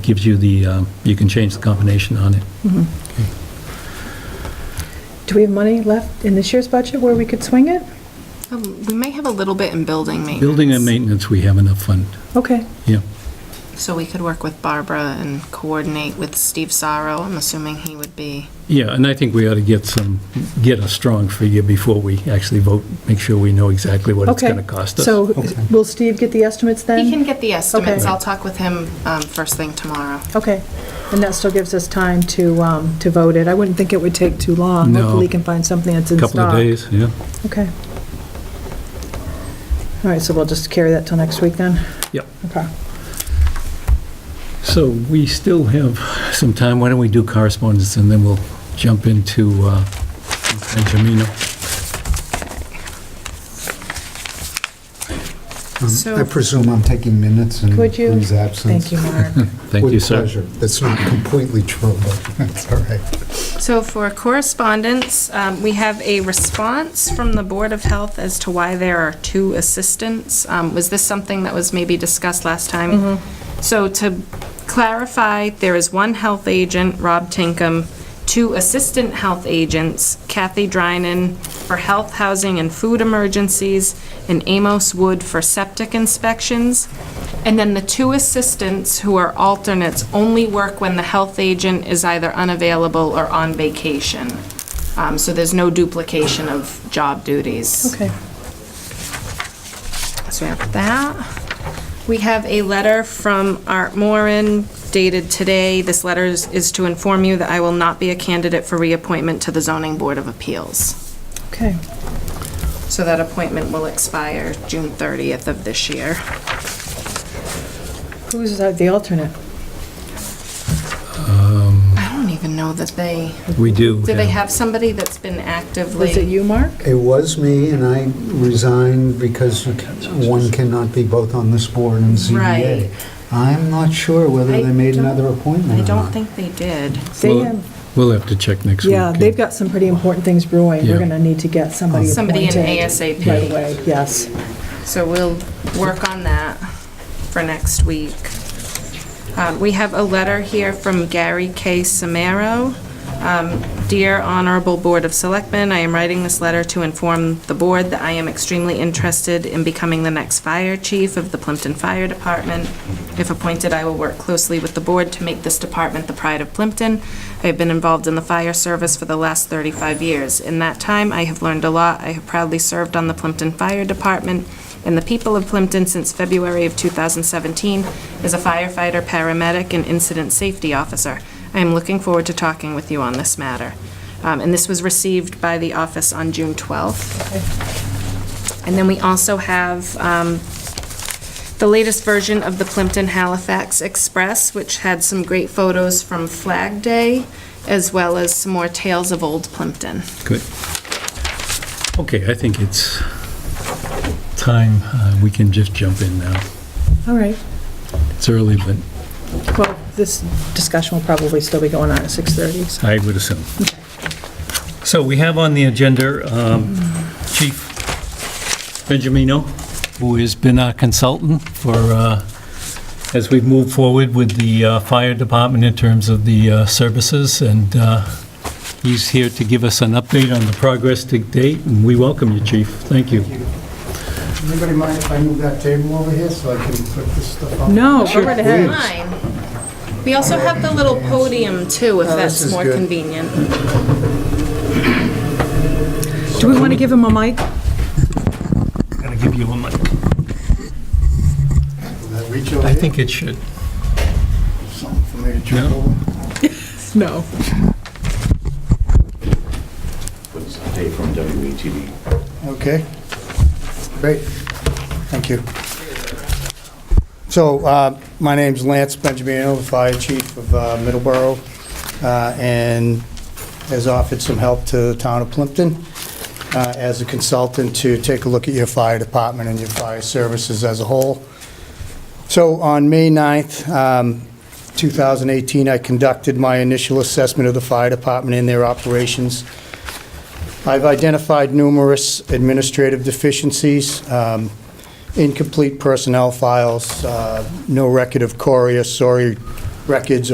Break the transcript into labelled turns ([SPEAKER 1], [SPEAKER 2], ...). [SPEAKER 1] gives you the, um, you can change the combination on it.
[SPEAKER 2] Do we have money left in this year's budget where we could swing it?
[SPEAKER 3] Um, We may have a little bit in building maintenance.
[SPEAKER 1] Building and maintenance, we have enough fund,
[SPEAKER 2] Okay.
[SPEAKER 1] yeah.
[SPEAKER 3] So we could work with Barbara and coordinate with Steve Sorrow. I'm assuming he would be,
[SPEAKER 1] Yeah, and I think we ought to get some, get a strong figure before we actually vote, make sure we know exactly what it's
[SPEAKER 2] Okay.
[SPEAKER 1] going to cost us.
[SPEAKER 2] So will Steve get the estimates then?
[SPEAKER 3] he can get the estimates.
[SPEAKER 2] Okay.
[SPEAKER 3] I'll talk with him um, first thing tomorrow.
[SPEAKER 2] Okay. And that still gives us time to, um, to vote it. I wouldn't think it would take too long.
[SPEAKER 1] No.
[SPEAKER 2] Hopefully, we can find something that's in stock.
[SPEAKER 1] Couple of days, yeah.
[SPEAKER 2] Okay. All right, so we'll just carry that till next week then?
[SPEAKER 1] Yep.
[SPEAKER 2] Okay.
[SPEAKER 1] So we still have some time. Why don't we do correspondence, and then we'll jump into uh, Jamino.
[SPEAKER 3] So-
[SPEAKER 4] Um, I presume I'm taking minutes and
[SPEAKER 2] Would you?
[SPEAKER 4] his absence.
[SPEAKER 2] Thank you, Mark.
[SPEAKER 1] Thank you,
[SPEAKER 4] With
[SPEAKER 1] sir.
[SPEAKER 4] pleasure. That's not completely true, but that's all right.
[SPEAKER 3] So for correspondence, um, we have a response from the Board of Health as to why there are two assistants. Um, Was this something that was maybe discussed last time? So to clarify, there is one health agent, Rob Tinkham, two assistant health agents, Kathy Drynan for health, housing, and food emergencies, and Amos Wood for septic inspections. And then the two assistants who are alternates only work when the health agent is either unavailable or on vacation. Um, So there's no duplication of job duties.
[SPEAKER 2] Okay.
[SPEAKER 3] So we have that. We have a letter from Art Moran dated today. This letter is is to inform you that I will not be a candidate for reappointment to the Zoning Board of Appeals.
[SPEAKER 2] Okay.
[SPEAKER 3] So that appointment will expire June 30th of this year.
[SPEAKER 2] Who's the alternate?
[SPEAKER 3] I don't even know that they,
[SPEAKER 1] We do.
[SPEAKER 3] do they have somebody that's been actively?
[SPEAKER 2] Was it you, Mark?
[SPEAKER 4] It was me, and I resigned because you can- one cannot be both on this board and
[SPEAKER 3] Right.
[SPEAKER 4] ZBA. I'm not sure whether
[SPEAKER 3] I
[SPEAKER 4] they made
[SPEAKER 3] don't-
[SPEAKER 4] another appointment
[SPEAKER 3] I
[SPEAKER 4] or
[SPEAKER 3] don't
[SPEAKER 4] not.
[SPEAKER 3] think they did.
[SPEAKER 2] They
[SPEAKER 1] Well,
[SPEAKER 2] have-
[SPEAKER 1] We'll have to check next week.
[SPEAKER 2] Yeah, they've got some pretty important things brewing.
[SPEAKER 1] Yeah.
[SPEAKER 2] We're going to need to get somebody appointed.
[SPEAKER 3] Somebody in
[SPEAKER 2] Right
[SPEAKER 3] ASAP.
[SPEAKER 2] away, yes.
[SPEAKER 3] So we'll work on that for next week. Um, We have a letter here from Gary K. Samaro. Um, Dear Honorable Board of Selectmen, I am writing this letter to inform the board that I am extremely interested in becoming the next fire chief of the Plimpton Fire Department. If appointed, I will work closely with the board to make this department the pride of Plimpton. I have been involved in the fire service for the last 35 years. In that time, I have learned a lot. I have proudly served on the Plimpton Fire Department and the people of Plimpton since February of 2017 as a firefighter, paramedic, and incident safety officer. I am looking forward to talking with you on this matter. Um, And this was received by the office on June 12th. And then we also have um, the latest version of the Plimpton Halifax Express, which had some great photos from Flag Day, as well as some more tales of old Plimpton.
[SPEAKER 1] Good. Okay, I think it's time. uh, We can just jump in now.
[SPEAKER 2] All right.
[SPEAKER 1] It's early, but
[SPEAKER 2] Well, this discussion will probably still be going on at 6:30, so.
[SPEAKER 1] I would assume. So we have on the agenda um, Chief Benjamino, who has been our consultant for, uh, as we've moved forward with the uh, fire department in terms of the uh, services, and uh, he's here to give us an update on the progress to date, and we welcome you, Chief. Thank you.
[SPEAKER 5] Anybody mind if I move that table over here so I can put this stuff on?
[SPEAKER 2] No, go right ahead.
[SPEAKER 3] Mine. We also have the little podium too, if
[SPEAKER 5] Oh,
[SPEAKER 3] that's
[SPEAKER 5] this is
[SPEAKER 3] more
[SPEAKER 5] good.
[SPEAKER 3] convenient.
[SPEAKER 2] Do we want to give him a mic?
[SPEAKER 1] I'm going to give you a mic.
[SPEAKER 5] Will that reach over
[SPEAKER 1] I
[SPEAKER 5] here?
[SPEAKER 1] think it should.
[SPEAKER 5] Something for me to trip
[SPEAKER 1] No.
[SPEAKER 5] over?
[SPEAKER 2] No.
[SPEAKER 6] Dave from WETV.
[SPEAKER 5] Okay. Great. Thank you. So, uh, my name's Lance Benjamino, the Fire Chief of uh, Middleborough, uh, and has offered some help to the town of Plimpton uh, as a consultant to take a look at your fire department and your fire services as a whole. So on May 9th, um, 2018, I conducted my initial assessment of the fire department and their operations. I've identified numerous administrative deficiencies, um, incomplete personnel files, uh, no record of Cory or Sori records